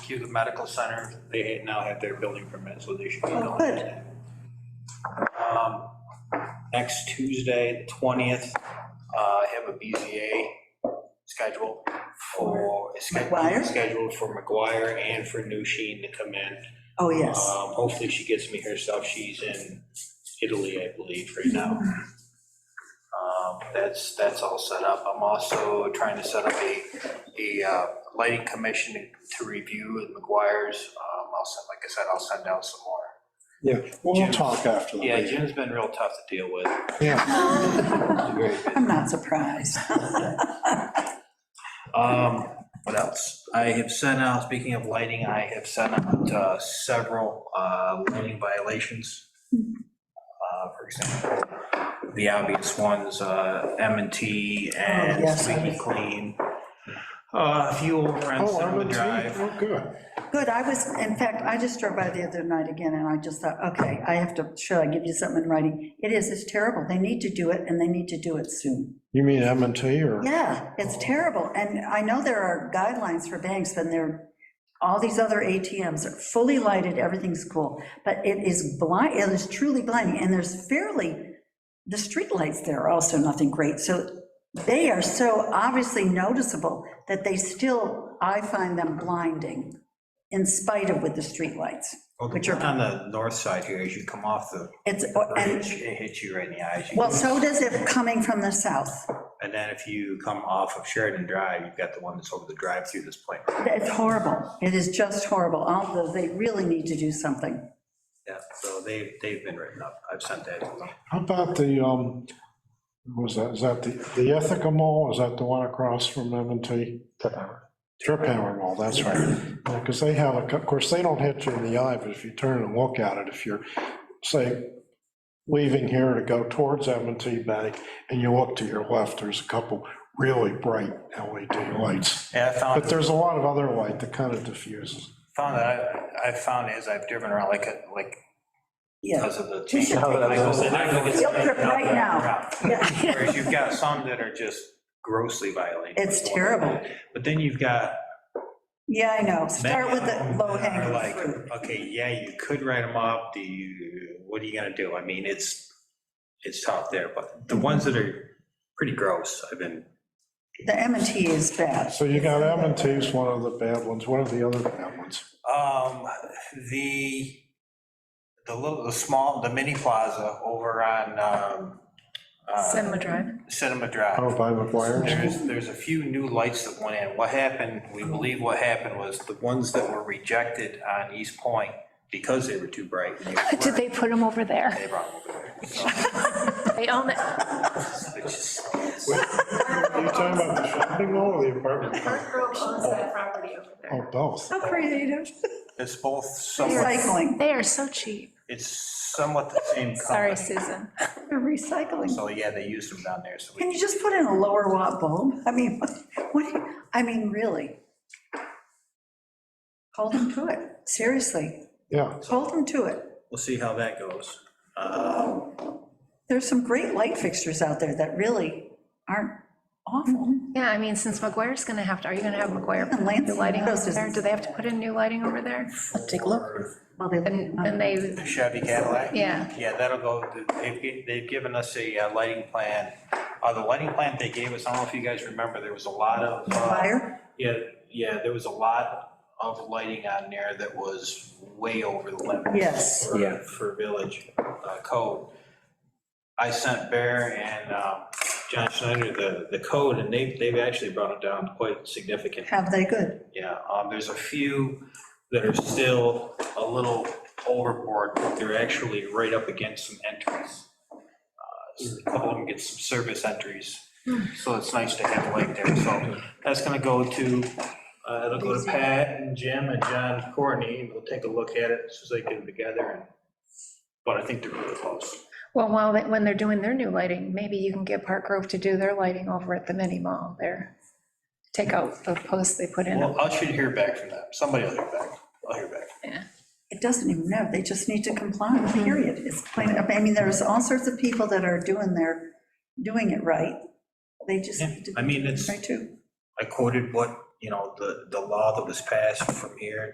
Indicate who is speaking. Speaker 1: Hugo Medical Center, they ha- now have their building permit, so they should be
Speaker 2: Oh,
Speaker 1: going.
Speaker 2: good.
Speaker 1: today. Um, Next Tuesday, the 20th, uh, I have a BZA scheduled for, is sched-
Speaker 2: McGuire?
Speaker 1: scheduled for McGuire and for New Sheen to come in.
Speaker 2: Oh, yes.
Speaker 1: Um, Hopefully she gets me her stuff. She's in Italy, I believe, right now.
Speaker 2: Mm-hmm.
Speaker 1: Um, That's, that's all set up. I'm also trying to set up a, a uh, lighting commission to- to review with McGuire's. Um, I'll send, like I said, I'll send out some more.
Speaker 3: Yeah, we'll talk after the
Speaker 1: Yeah,
Speaker 3: meeting.
Speaker 1: Jim's been real tough to deal with.
Speaker 3: Yeah,
Speaker 1: Very busy.
Speaker 2: I'm not surprised.
Speaker 1: Um, what else? I have sent out, speaking of lighting, I have sent out uh, several uh, lighting violations. Uh, For example, the obvious ones, uh, m and T
Speaker 2: Oh,
Speaker 1: and
Speaker 2: yes, I
Speaker 1: Squeaky Clean. Uh, A few over on
Speaker 3: oh, I'm
Speaker 1: Cinema
Speaker 3: in,
Speaker 1: Drive.
Speaker 3: oh, good.
Speaker 2: Good, I was, in fact, I just drove by the other night again, and I just thought, okay, I have to, should I give you something in writing? It is, it's terrible. They need to do it, and they need to do it soon.
Speaker 3: You mean M and T or?
Speaker 2: Yeah, it's terrible, and I know there are guidelines for banks, and there, all these other ATMs are fully lighted, everything's cool, but it is blind, it is truly blinding, and there's fairly, the streetlights there are also nothing great, so they are so obviously noticeable that they still, I find them blinding, in spite of with the streetlights, which are,
Speaker 1: On Oh, the north side here, as you come off the
Speaker 2: it's, and,
Speaker 1: bridge, it hits you right in the eyes. You-
Speaker 2: well, so does it coming from the south.
Speaker 1: And then if you come off of Sheridan Drive, you've got the one that's over the drive-through that's playing.
Speaker 2: It's horrible. It is just horrible, although they really need to do something.
Speaker 1: Yeah, so they, they've been written up. I've sent that to them.
Speaker 3: How about the, um, what was that, is that the, the Ithaca Mall, is that the one across from M and T? Trip Hammer Mall, that's right. Because they have, a cou- of course, they don't hit you in the eye, but if you turn and look at it, if you're, say, leaving here to go towards m and T Bank, and you look to your left, there's a couple really bright LED lights.
Speaker 1: Yeah, I found.
Speaker 3: But there's a lot of other light that kind of diffuses.
Speaker 1: found that, I- I've found as I've driven around, like, uh, like,
Speaker 2: Yeah.
Speaker 1: because of the
Speaker 2: We
Speaker 1: change.
Speaker 2: should take
Speaker 1: I go-
Speaker 2: those.
Speaker 1: I go get
Speaker 2: Field
Speaker 1: some-
Speaker 2: trip right now.
Speaker 1: Oh,
Speaker 2: Yeah.
Speaker 1: Whereas you've got some that are just grossly violating.
Speaker 2: It's terrible.
Speaker 1: But then you've got.
Speaker 2: Yeah, I know.
Speaker 1: many
Speaker 2: Start with
Speaker 1: of them
Speaker 2: the
Speaker 1: that are
Speaker 2: low hanging
Speaker 1: like,
Speaker 2: fruit.
Speaker 1: Okay, yeah, you could write them up, do you, what are you gonna do? I mean, it's, it's tough there, but the ones that are pretty gross, I've been,
Speaker 2: The M and T is bad.
Speaker 3: So you got m and T's one of the bad ones, what are the other bad ones?
Speaker 1: um, the, the little, the small, the mini plaza over on, um, uh,
Speaker 4: Cinema Drive.
Speaker 1: Cinema Drive.
Speaker 3: Oh, by
Speaker 1: There's,
Speaker 3: McGuire's?
Speaker 1: there's a few new lights that went in. What happened, we believe what happened was the ones that were rejected on East Point, because they were too bright. and they
Speaker 4: Did they
Speaker 1: weren't,
Speaker 4: put them over there?
Speaker 1: They brought them over there. So,
Speaker 4: They own it.
Speaker 1: it's just-
Speaker 3: Are you talking about the shopping mall or the apartment?
Speaker 5: Park Grove owns that property over there.
Speaker 3: Oh, both.
Speaker 2: How creative.
Speaker 1: It's both somewhat,
Speaker 2: Recycling,
Speaker 4: They are so cheap.
Speaker 1: it's somewhat the same color.
Speaker 4: Sorry, Susan.
Speaker 2: They're recycling.
Speaker 1: So, yeah, they used them down there, so
Speaker 2: Can
Speaker 1: we,
Speaker 2: you just put in a lower watt bulb? I mean, what, do you- I mean, really. Hold them to it. Seriously,
Speaker 3: Yeah,
Speaker 2: hold them to it.
Speaker 1: we'll see how that goes.
Speaker 2: There's some great light fixtures out there that really aren't awful.
Speaker 4: Yeah, I mean, since McGuire's gonna have to, are you gonna have McGuire put in new
Speaker 2: Lansing
Speaker 4: lighting
Speaker 2: Meadows
Speaker 4: over
Speaker 2: is-
Speaker 4: there? Do they have to put in new lighting over there?
Speaker 2: Take a look. Well, they,
Speaker 4: And, and they,
Speaker 1: The Chevy Cadillac?
Speaker 4: Yeah.
Speaker 1: Yeah, that'll go, they've, gi- they've given us a uh, lighting plan. Uh, the lighting plan they gave us, I don't know if you guys remember, there was a lot of. uh,
Speaker 2: fire,
Speaker 1: Yeah, yeah, there was a lot of lighting on there that was way over the limit.
Speaker 2: Yes.
Speaker 1: for-
Speaker 6: Yeah.
Speaker 1: For village uh, code. I sent Bear and um, John Schneider the, the code, and they, they've actually brought it down quite significantly.
Speaker 2: have they good?
Speaker 1: Yeah, um, there's a few that are still a little overboard, but they're actually right up against some entries. Uh, A couple of them get some service entries, so it's nice to have light there, so that's gonna go to, uh, it'll go to Pat and Jim and John and Courtney, and we'll take a look at it, so they get it together, and, but I think they're really close.
Speaker 4: well, while, they- when they're doing their new lighting, maybe you can get Park Grove to do their lighting over at the mini mall there. Take out the posts they put in.
Speaker 1: Well, I should hear back from them, somebody will hear back, I'll hear back.
Speaker 2: It doesn't even know, they just need to comply, period. It's plain, I mean, there's all sorts of people that are doing their, doing it right. They just
Speaker 1: Yeah,
Speaker 2: need to.
Speaker 1: I mean, it's-
Speaker 2: Right too.
Speaker 1: I quoted what, you know, the, the law that was passed from here